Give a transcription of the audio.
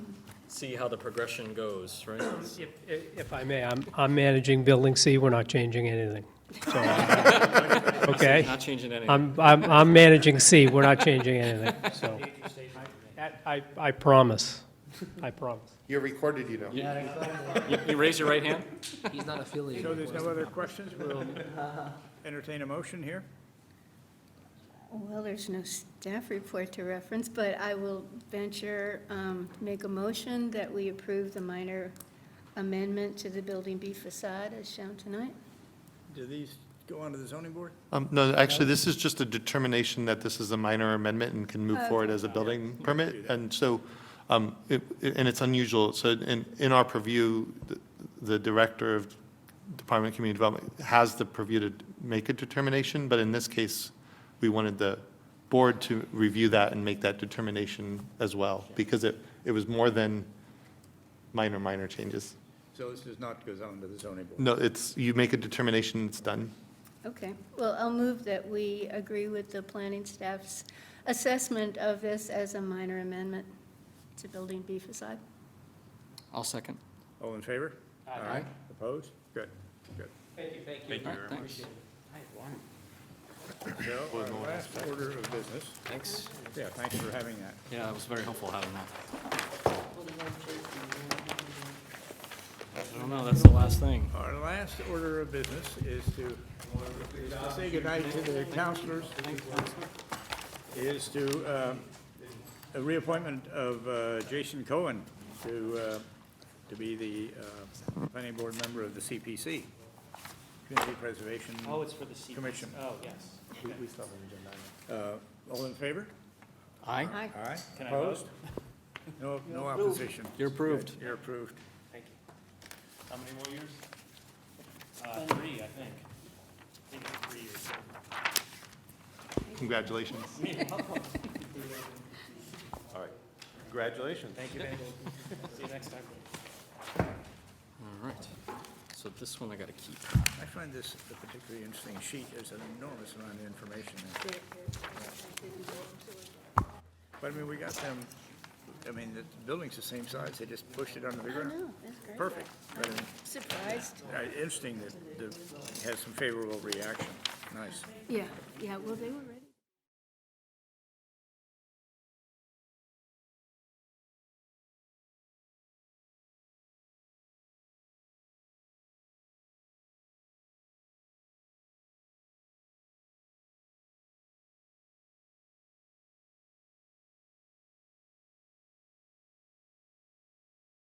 see how the progression goes, right? If- If I may, I'm, I'm managing Building C, we're not changing anything. So, Okay? Not changing anything. I'm, I'm, I'm managing C, we're not changing anything, so. That- I, I promise, I promise. You're recorded, you know. You- You raise your right hand? He's not affiliated. So there's with us. no other questions, we'll entertain a motion here. Well, there's no staff report to reference, but I will venture, um, make a motion that we approve the minor amendment to the Building B facade as shown tonight. Do these go on to the zoning board? Um, no, actually, this is just a determination that this is a minor amendment and can move Okay. forward as a building permit. And so, um, it, it- and it's unusual. So in, in our purview, the- the director of Department of Community Development has the purview to make a determination, but in this case, we wanted the board to review that and make that determination as well, because it, it was more than minor, minor changes. So this does not go on to the zoning board. No, it's, you make a determination, it's done. Okay, well, I'll move that we agree with the planning staff's assessment of this as a minor amendment to Building B facade. I'll second. All in favor? Aye. Opposed? Good, good. Thank you very much. So our last order of business, Thanks. yeah, thanks for having that. Yeah, it was very helpful having that. I don't know, that's the last thing. Our last order of business is to, is to say goodnight to the councilors, is to, um, a reappointment of uh, Jason Cohen to, uh, to be the uh, planning board member of the CPC, Community Preservation. Oh, it's for the secret. Commission. Oh, yes. Uh, All in favor? Aye. Aye. Aye. Can I vote? Opposed? No, no opposition. You're approved. You're approved. Thank you. How many more years? Uh, three, I think. I think it's three years. Congratulations. Thank you, Dave. See you next time. All right. So this one I gotta keep. I find this a particularly interesting sheet. There's an enormous amount of information there. But I mean, we got them, I mean, the building's the same size. They just pushed it under the I ground. know, Oh, that's great. Perfect. But, I mean, Surprised. uh, Interesting that, that it has some favorable reaction. Nice. Yeah, yeah, well, they were ready.